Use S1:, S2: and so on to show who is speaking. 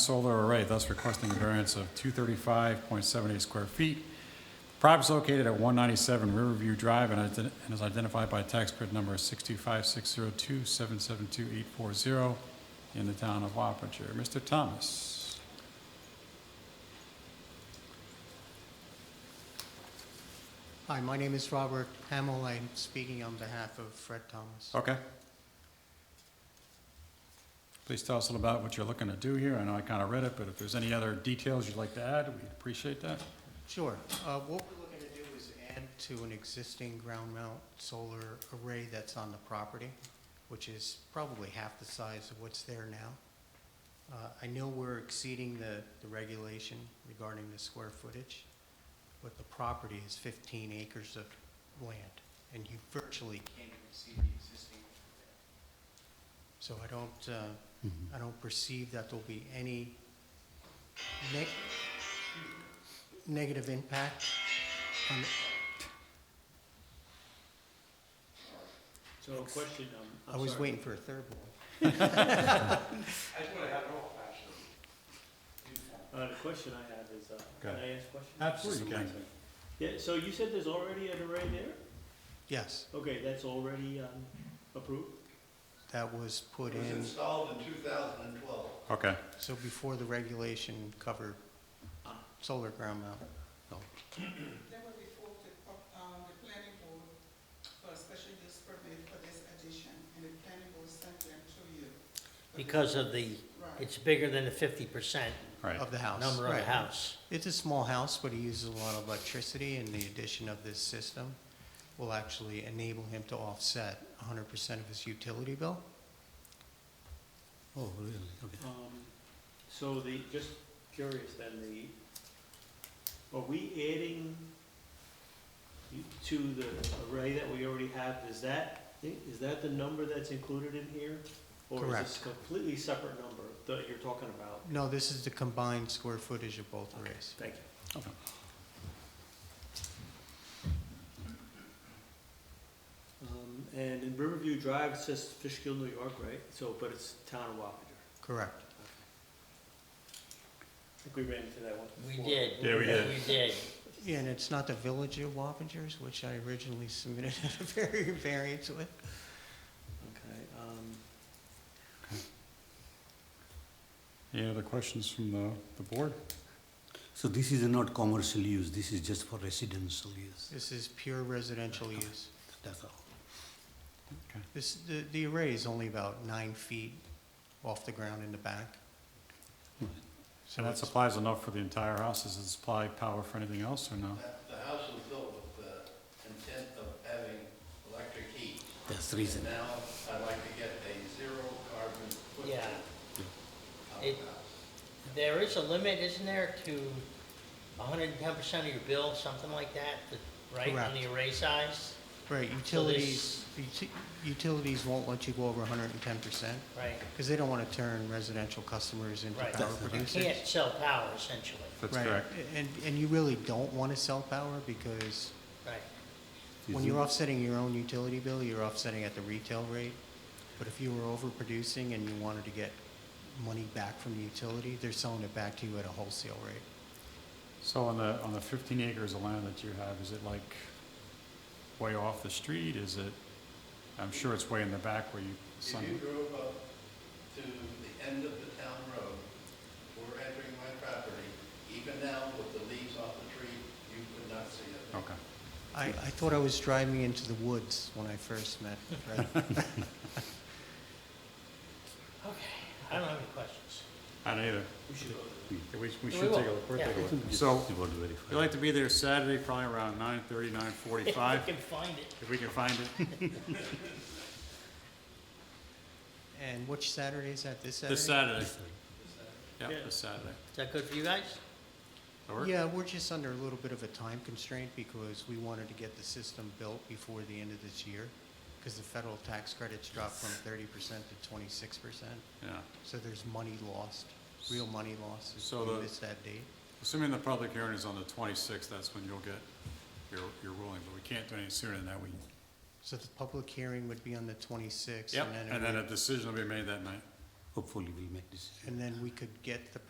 S1: solar array, thus requesting a variance of 235.78 square feet. Property is located at 197 Riverview Drive and ident- and is identified by tax grid number 625-602-772-840 in the town of Wapanger. Mr. Thomas?
S2: Hi, my name is Robert Hamel. I'm speaking on behalf of Fred Thomas.
S1: Okay. Please tell us a little about what you're looking to do here. I know I kind of read it, but if there's any other details you'd like to add, we'd appreciate that.
S2: Sure. Uh, What we're looking to do is add to an existing ground mount solar array that's on the property, which is probably half the size of what's there now. Uh, I know we're exceeding the the regulation regarding the square footage, but the property is 15 acres of land, and you virtually can't even see the existing. So I don't, uh, I don't perceive that there'll be any neg- negative impact on,
S3: So a question, um, I'm
S2: I was
S3: sorry.
S2: waiting for a third one.
S3: Uh, the question I have is, uh,
S1: Go
S3: can I ask a question?
S1: Absolutely, you can.
S3: Yeah, so you said there's already an array there?
S2: Yes,
S3: Okay, that's already, um, approved?
S2: that was put
S4: It was
S2: in,
S4: installed in 2012.
S1: Okay.
S2: so before the regulation covered solar ground mount.
S5: They were before the, um, the planning board for a special use permit for this addition, and the planning board sent them to you.
S6: Because of the,
S5: Right,
S6: it's bigger than the fifty percent
S1: All right.
S2: Of the house.
S6: number of the
S2: right.
S6: house.
S2: It's a small house, but he uses a lot of electricity, and the addition of this system will actually enable him to offset 100% of his utility bill.
S7: Oh, really? Okay.
S3: Um, so the, just curious then, the, are we adding you- to the array that we already have, is that, is that the number that's included in here? Or is
S2: Correct.
S3: this a completely separate number that you're talking about?
S2: No, this is the combined square footage of both arrays.
S3: Thank you. Um, and in Riverview Drive, it says Fishkill, New York, right? So, but it's town of Wapanger.
S2: Correct.
S3: I think we ran into that one
S6: We
S3: before.
S6: did.
S1: Yeah, we did.
S6: We did.
S2: Yeah, and it's not the village of Wappingers, which I originally submitted a very variance with.
S3: Okay, um,
S1: Any other questions from the, the board?
S7: So this is not commercial use, this is just for residential use,
S2: This is pure residential use.
S7: that's all.
S1: Okay.
S2: This, the, the array is only about nine feet off the ground in the back. So
S1: And that
S2: that's,
S1: supplies enough for the entire house, does it supply power for anything else or no?
S4: That- The house was built with the intent of having electric heat.
S7: That's the reason.
S4: And now I'd like to get a zero carbon footprint
S6: Yeah.
S4: of the
S6: It-
S4: house.
S6: There is a limit, isn't there, to hundred and ten percent of your bill, something like that, the- right, on the array size?
S2: right, utilities, uti- utilities won't let you go over hundred and ten percent,
S6: Right,
S2: because they don't want to turn residential customers into
S6: right.
S2: power
S6: You
S2: producers.
S6: can't sell power essentially,
S1: That's
S2: Right.
S1: correct.
S2: And, and you really don't want to sell power, because
S6: right.
S2: When
S7: Is
S2: you're
S7: it-
S2: offsetting your own utility bill, you're offsetting at the retail rate. But if you were overproducing and you wanted to get money back from the utility, they're selling it back to you at a wholesale rate.
S1: So on the, on the fifteen acres of land that you have, is it like way off the street, is it, I'm sure it's way in the back where you,
S4: If you
S1: sun,
S4: drove up to the end of the town road, we're entering my property, even now with the leaves off the tree, you could not see it.
S2: Oh.
S1: okay.
S2: I, I thought I was driving into the woods when I first met Fred.
S6: Okay, I don't have any questions.
S1: I don't either.
S3: we should go
S1: Yeah, We, we
S6: We
S1: should
S6: will.
S1: take a look, we're
S6: Yeah.
S1: taking a look.
S7: Just
S1: So,
S7: about verify.
S1: we'd like to be there Saturday, probably around nine thirty, nine forty-five,
S6: If we can find it.
S1: if we can find it,
S2: And which Saturday is that, this Saturday?
S1: this Saturday. Yeah,
S3: Yeah.
S1: this Saturday.
S6: Is that good for you guys?
S1: That work?
S2: Yeah, we're just under a little bit of a time constraint because we wanted to get the system built before the end of this year. Because the federal tax credits dropped from thirty percent to twenty-six percent.
S1: Yeah.
S2: So there's money lost, real money lost if
S1: So the-
S2: you miss that date.
S1: Assuming the public hearing is on the 26th, that's when you'll get your, your ruling, but we can't do any sooner than that. We,
S2: So the public hearing would be on the 26th?
S1: yep,
S2: and then it
S1: and then a
S2: would-
S1: decision will be made that night.
S7: Hopefully we'll make decision.
S2: And then we could get the